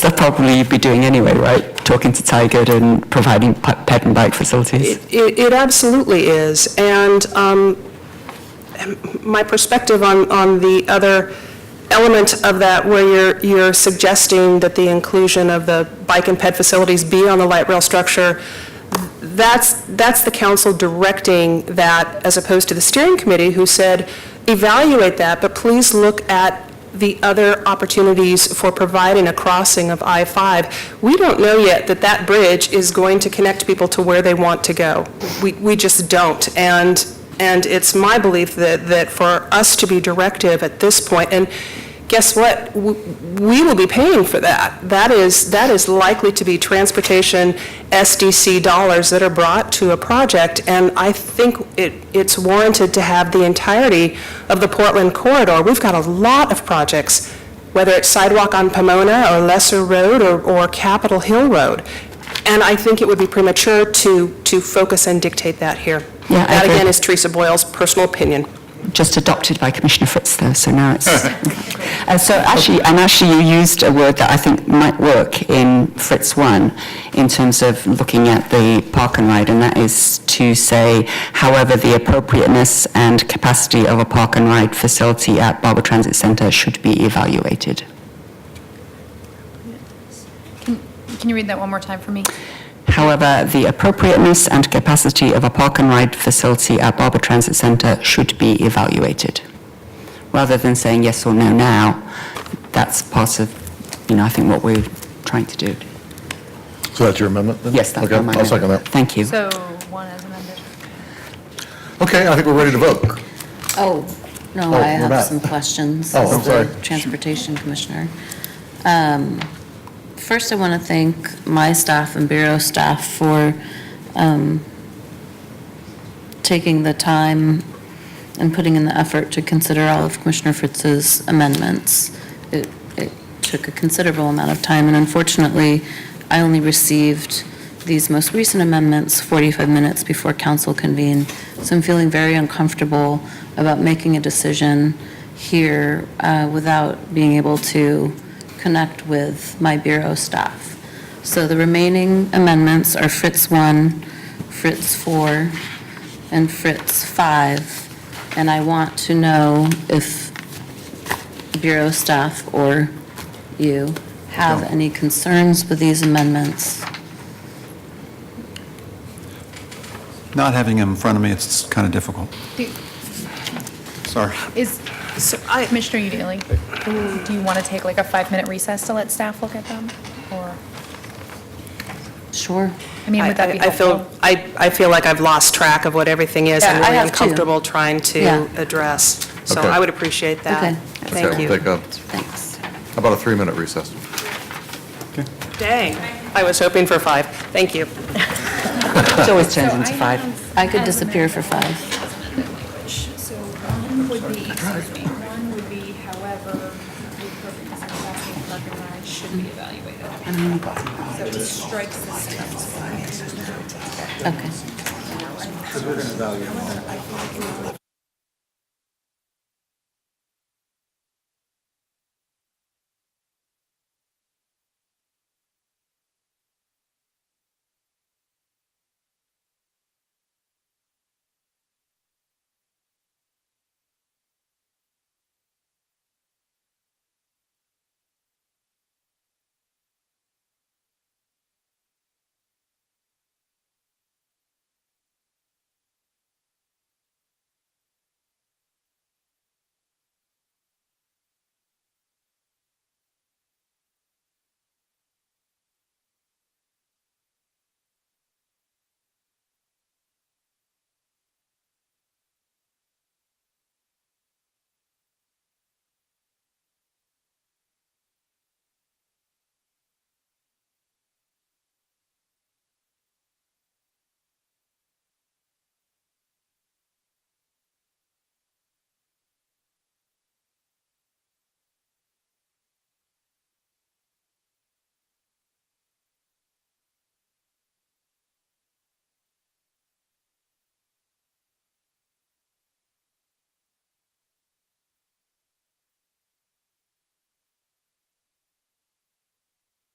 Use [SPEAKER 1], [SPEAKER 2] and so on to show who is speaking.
[SPEAKER 1] probably be doing anyway, right? Talking to Tigard and providing pa- pet and bike facilities.
[SPEAKER 2] It it absolutely is. And um, my perspective on on the other element of that, where you're you're suggesting that the inclusion of the bike and ped facilities be on the light rail structure, that's, that's the council directing that, as opposed to the steering committee, who said, evaluate that, but please look at the other opportunities for providing a crossing of I-5. We don't know yet that that bridge is going to connect people to where they want to go. We, we just don't. And, and it's my belief that, that for us to be directive at this point, and guess what? W- We will be paying for that. That is, that is likely to be transportation SDC dollars that are brought to a project, and I think it, it's warranted to have the entirety of the Portland corridor. We've got a lot of projects, whether it's sidewalk on Pomona, or Lesser Road, or, or Capitol Hill Road, and I think it would be premature to, to focus and dictate that here.
[SPEAKER 1] Yeah, I
[SPEAKER 2] That,
[SPEAKER 1] agree.
[SPEAKER 2] again, is Teresa Boyle's personal opinion.
[SPEAKER 1] Just adopted by Commissioner Fritz though, so now it's... Uh, So actually, and actually you used a word that I think might work in Fritz 1 in terms of looking at the park and ride, and that is to say, however, the appropriateness and capacity of a park and ride facility at Barber Transit Centre should be evaluated.
[SPEAKER 3] Can you read that one more time for me?
[SPEAKER 1] However, the appropriateness and capacity of a park and ride facility at Barber Transit Centre should be evaluated. Rather than saying yes or no now, that's part of, you know, I think what we're trying to do.
[SPEAKER 4] So that's your amendment then?
[SPEAKER 1] Yes, that's
[SPEAKER 4] Okay,
[SPEAKER 1] my amendment.
[SPEAKER 4] I'll second that.
[SPEAKER 1] Thank you.
[SPEAKER 3] So, one as amended.
[SPEAKER 4] Okay, I think we're ready to vote.
[SPEAKER 5] Oh, no,
[SPEAKER 4] Oh,
[SPEAKER 5] I
[SPEAKER 4] we're back.
[SPEAKER 5] have some questions.
[SPEAKER 4] Oh, I'm
[SPEAKER 5] as the
[SPEAKER 4] sorry.
[SPEAKER 5] Transportation Commissioner. Um, First, I want to thank my staff and Bureau staff for um, taking the time and putting in the effort to consider all of Commissioner Fritz's amendments. It it took a considerable amount of time, and unfortunately, I only received these most recent amendments 45 minutes before council convened, so I'm feeling very uncomfortable about making a decision here uh, without being able to connect with my Bureau staff. So the remaining amendments are Fritz 1, Fritz 4, and Fritz 5, and I want to know if Bureau staff or you have any concerns with these amendments.
[SPEAKER 6] Not having them in front of me, it's kind of difficult.
[SPEAKER 3] Do-
[SPEAKER 6] Sorry.
[SPEAKER 3] Is, so, Commissioner Udaley, do you want to take like a five-minute recess to let staff look at them? Or,
[SPEAKER 5] Sure.
[SPEAKER 3] I mean, would that be
[SPEAKER 2] I- I-
[SPEAKER 3] helpful?
[SPEAKER 2] I feel, I, I feel like I've lost track of what everything is.
[SPEAKER 5] Yeah, I
[SPEAKER 2] I'm really
[SPEAKER 5] have too.
[SPEAKER 2] uncomfortable trying
[SPEAKER 5] Yeah.
[SPEAKER 2] to address. So
[SPEAKER 4] Okay.
[SPEAKER 2] I would appreciate that.
[SPEAKER 5] Okay.
[SPEAKER 4] Okay,
[SPEAKER 2] Thank
[SPEAKER 4] we'll
[SPEAKER 2] you.
[SPEAKER 4] take a,
[SPEAKER 5] Thanks.
[SPEAKER 4] about a three-minute recess.
[SPEAKER 2] Dang, I was hoping for five. Thank you.
[SPEAKER 1] It always turns into five.
[SPEAKER 5] I could disappear for five.
[SPEAKER 7] So one would be, excuse me, one would be however, the purpose of asking for recognized should be evaluated. So it strikes the sentence.
[SPEAKER 5] Okay.